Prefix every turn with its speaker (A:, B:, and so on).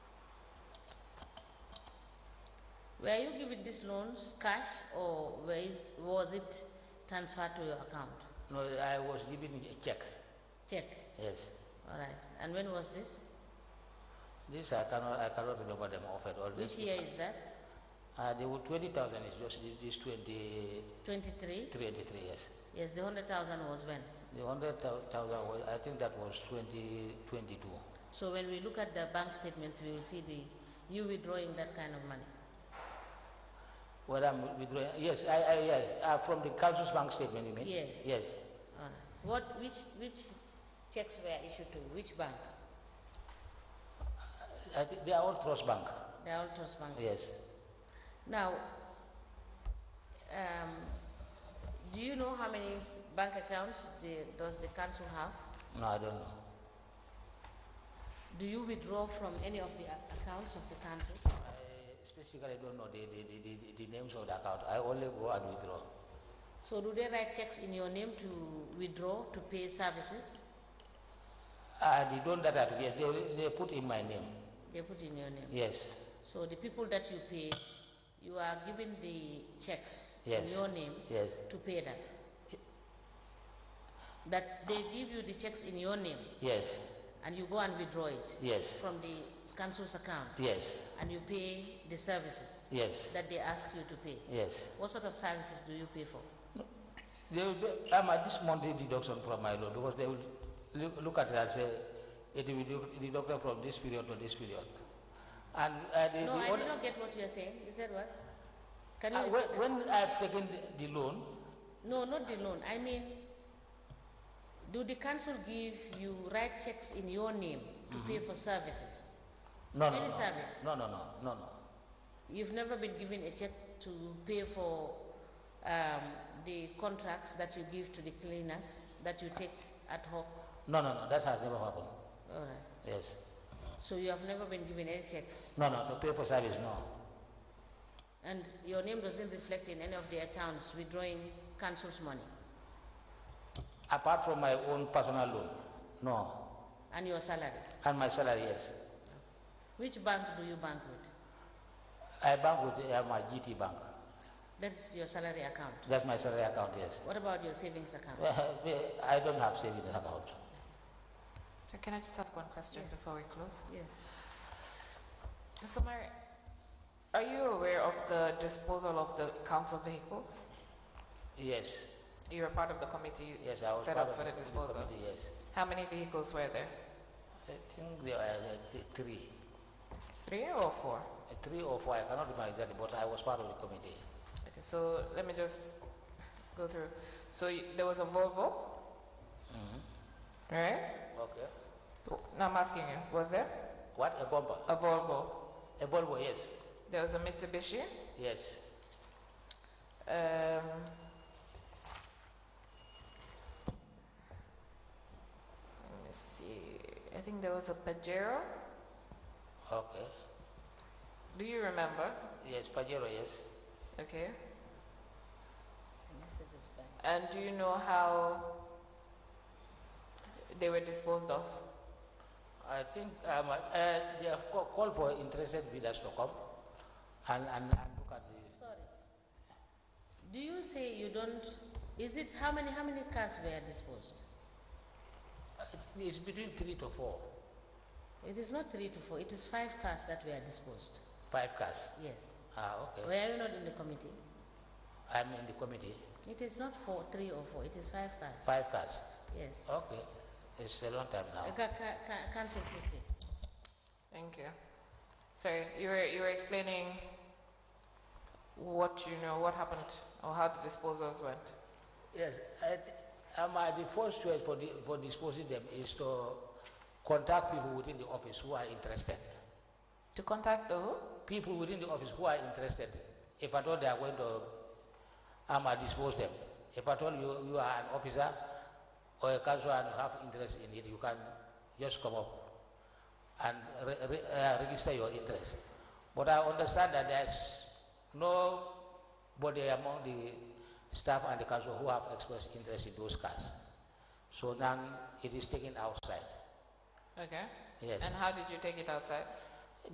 A: Were you given these loans cash or were is- was it transferred to your account?
B: No, I was given a check.
A: Check.
B: Yes.
A: All right. And when was this?
B: This I cannot, I cannot remember them off at all.
A: Which
B: This-
A: year is that?
B: Uh, the 20,000 is just this, this 23,
A: 23?
B: 23 years.
A: Yes, the 100,000 was when?
B: The 100,000 was, I think that was 2022.
A: So when we look at the bank statements, we will see the you withdrawing that kind of money.
B: Whether I'm withdrawing, yes, I, I, yes, uh, from the council's bank statement, you mean?
A: Yes.
B: Yes.
A: All right. What, which, which checks were issued to which bank?
B: I think they are all trust bank.
A: The all trust bank.
B: Yes.
A: Now, um, do you know how many bank accounts the, does the council have?
B: No, I don't know.
A: Do you withdraw from any of the a- accounts of the council?
B: I specifically don't know the, the, the, the, the names of the account. I only go and withdraw.
A: So do they write checks in your name to withdraw, to pay services?
B: Uh, the loan that I get, they, they put in my name.
A: They put in your name.
B: Yes.
A: So the people that you pay, you are given the checks in
B: Yes.
A: your name
B: Yes.
A: to pay them. That they give you the checks in your name
B: Yes.
A: and you go and withdraw it
B: Yes.
A: from the council's account
B: Yes.
A: and you pay the services
B: Yes.
A: that they ask you to pay.
B: Yes.
A: What sort of services do you pay for?
B: They will, be- I'm at this monthly deduction from my loan because they will look, look at it and say it will be deducted from this period to this period. And uh, the,
A: No,
B: the
A: I
B: other-
A: did not get what you are saying. You said what? Can you?
B: uh,
A: repeat that?
B: when, when I've taken the, the loan,
A: No, not the loan. I mean, do the council give you write checks in your name to pay
B: Mm-hmm.
A: for services?
B: no, no,
A: Any
B: no,
A: service.
B: no, no, no, no, no.
A: You've never been given a check to pay for um, the contracts that you give to the cleaners that you take at home.
B: No, no, no, that has never happened.
A: All right.
B: Yes.
A: So you have never been given any checks,
B: No, no, the paper service, no.
A: and your name doesn't reflect in any of the accounts withdrawing council's money,
B: Apart from my own personal loan, no.
A: and your salary.
B: And my salary, yes.
A: Which bank do you bank with?
B: I bank with uh, my GT bank.
A: That's your salary account.
B: That's my salary account, yes.
A: What about your savings account?
B: I don't have savings account.
C: So can I just ask one question before we close?
A: Yes.
C: Mr. Mayor, are you aware of the disposal of the council vehicles?
B: Yes.
C: You were part of the committee
B: Yes, I was
C: set
B: part
C: up
B: of
C: for the
B: the
C: disposal.
B: committee, yes.
C: How many vehicles were there?
B: I think there were uh, th- three,
C: Three or four?
B: Uh, three or four, I cannot remember exactly, but I was part of the committee.
C: Okay, so let me just go through. So you, there was a Volvo,
B: Mm-hmm.
C: right?
B: Okay.
C: Now I'm asking you, was there
B: What, a bumper?
C: a Volvo?
B: A Volvo, yes,
C: There was a Mitsubishi.
B: yes.
C: Um, let me see. I think there was a Pajero.
B: Okay.
C: Do you remember?
B: Yes, Pajero, yes.
C: Okay.
A: Messages back.
C: And do you know how they were disposed of?
B: I think um, uh, they have ca- called for interested bidders to come and, and, and look at this.
A: Sorry. Do you say you don't, is it, how many, how many cars were disposed?
B: I think It's between three to four,
A: It is not three to four, it is five cars that were disposed.
B: five cars.
A: Yes.
B: Ah, okay.
A: Were you not in the committee?
B: I'm in the committee,
A: It is not four, three or four, it is five cars.
B: five cars.
A: Yes.
B: Okay, it's a long time now.
A: Uh, ca- ca- ca- Council proceed.
C: Thank you. Sorry, you were you were explaining what you know, what happened, or how the disposals went.
B: Yes, I th- um, uh, the first choice for, the, for disposing them is to contact people within the office who are interested.
C: To contact the who?
B: People within the office who are interested, if at all they are going to um, uh, dispose them. If at all you, you are an officer or a council and have interest in it, you can just come up and re- re- uh, register your interest. But I understand that there's nobody among the staff and the council who have expressed interest in those cars. So now it is taken outside.
C: Okay.
B: Yes.
C: And how did you take it outside?